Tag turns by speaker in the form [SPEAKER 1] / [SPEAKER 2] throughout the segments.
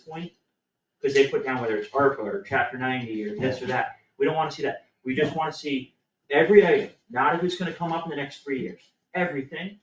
[SPEAKER 1] point, cause they put down whether it's ARPA or chapter ninety or this or that, we don't wanna see that. We just wanna see every item, not if it's gonna come up in the next three years, everything,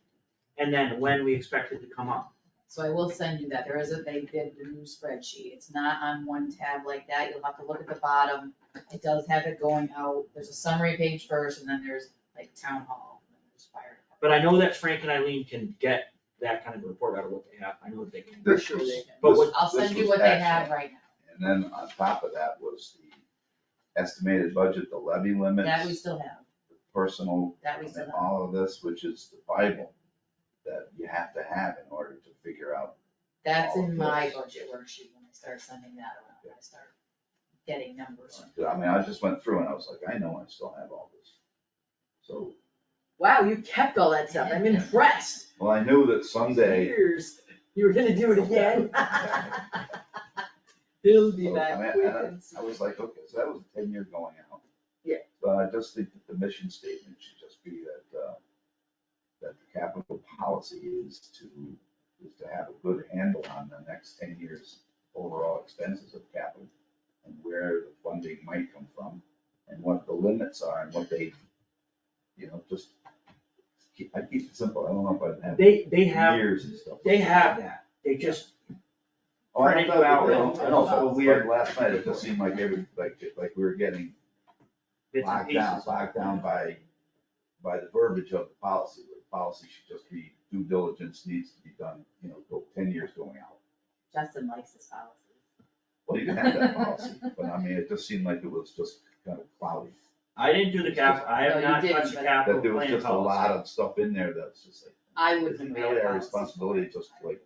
[SPEAKER 1] and then when we expect it to come up.
[SPEAKER 2] So I will send you that, there is a, they did the new spreadsheet, it's not on one tab like that, you'll have to look at the bottom. It does have it going out, there's a summary page first, and then there's like town hall, and then there's fire.
[SPEAKER 1] But I know that Frank and Eileen can get that kind of report out of what they have, I know that they can.
[SPEAKER 2] I'm
[SPEAKER 3] This
[SPEAKER 2] sure
[SPEAKER 3] was-
[SPEAKER 2] they can.
[SPEAKER 1] But what-
[SPEAKER 2] I'll
[SPEAKER 3] this
[SPEAKER 2] send you
[SPEAKER 3] was
[SPEAKER 2] what they have
[SPEAKER 3] excellent.
[SPEAKER 2] right now,
[SPEAKER 3] And then on top of that was the estimated budget, the levy
[SPEAKER 2] that we
[SPEAKER 3] limits,
[SPEAKER 2] still have,
[SPEAKER 3] the personal,
[SPEAKER 2] that we
[SPEAKER 3] and
[SPEAKER 2] still have.
[SPEAKER 3] all of this, which is the Bible that you have to have in order to figure out.
[SPEAKER 2] That's
[SPEAKER 3] all
[SPEAKER 2] in
[SPEAKER 3] of
[SPEAKER 2] my
[SPEAKER 3] this.
[SPEAKER 2] budget worksheet, when I start sending that around, I start getting numbers.
[SPEAKER 3] I mean, I just went through and I was like, I know I still have all this. So,
[SPEAKER 4] Wow, you kept all that stuff. I'm impressed.
[SPEAKER 3] well, I knew that someday.
[SPEAKER 4] Years. You were gonna do it again. He'll be
[SPEAKER 3] So, I mean,
[SPEAKER 4] back quick
[SPEAKER 3] I-
[SPEAKER 4] and
[SPEAKER 3] I was like, okay, so that was a ten year going out.
[SPEAKER 4] Yeah.
[SPEAKER 3] But I just think that the mission statement should just be that, uh, that the capital policy is to, is to have a good handle on the next ten years overall expenses of capital and where the funding might come from and what the limits are and what they, you know, just keep, I keep it simple. I don't know if I have
[SPEAKER 1] They, they have,
[SPEAKER 3] years and stuff.
[SPEAKER 1] they have that, they just,
[SPEAKER 3] Oh, I know,
[SPEAKER 1] Right,
[SPEAKER 3] I
[SPEAKER 4] well,
[SPEAKER 3] know, I know, it felt weird last night, it just seemed like every, like, like we were getting
[SPEAKER 1] bits and
[SPEAKER 3] locked
[SPEAKER 1] pieces.
[SPEAKER 3] down, locked down by, by the verbiage of the policy, the policy should just be due diligence needs to be done, you know, go ten years going out.
[SPEAKER 2] Justin likes his policy.
[SPEAKER 3] Well, you can have that policy, but I mean, it just seemed like it was just kind of cloudy,
[SPEAKER 1] I didn't do the cap, I
[SPEAKER 2] No,
[SPEAKER 1] have
[SPEAKER 2] you
[SPEAKER 1] not
[SPEAKER 2] didn't,
[SPEAKER 1] touched the
[SPEAKER 2] but-
[SPEAKER 1] capital
[SPEAKER 3] that there
[SPEAKER 1] plan
[SPEAKER 3] was just a
[SPEAKER 1] policy.
[SPEAKER 3] lot of stuff in there that's just like,
[SPEAKER 2] I
[SPEAKER 3] it's
[SPEAKER 2] wouldn't.
[SPEAKER 3] really our responsibility just like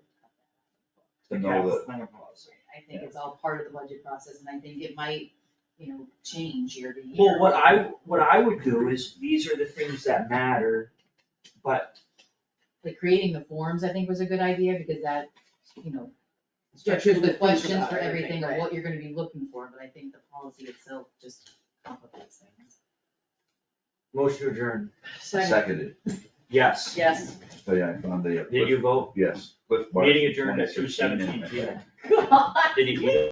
[SPEAKER 3] to
[SPEAKER 1] The
[SPEAKER 3] know that,
[SPEAKER 1] capital plan policy.
[SPEAKER 2] I think it's all part of the budget process, and I think it might, you know, change year to year.
[SPEAKER 1] Well, what I, what I would do is, these are the things that matter, but
[SPEAKER 2] Like creating the forms, I think was a good idea, because that, you know,
[SPEAKER 4] Structures
[SPEAKER 2] structures the
[SPEAKER 4] would think
[SPEAKER 2] questions
[SPEAKER 4] about
[SPEAKER 2] for everything
[SPEAKER 4] everything,
[SPEAKER 2] of
[SPEAKER 4] right.
[SPEAKER 2] what you're gonna be looking for, but I think the policy itself just complicates things.
[SPEAKER 1] motion adjourned,
[SPEAKER 3] seconded,
[SPEAKER 1] yes.
[SPEAKER 4] Yes.
[SPEAKER 3] so yeah, I found the.
[SPEAKER 1] Did you vote?
[SPEAKER 3] Yes, Cliff Bar.
[SPEAKER 1] Meeting adjourned at two seventeen P M. Did you?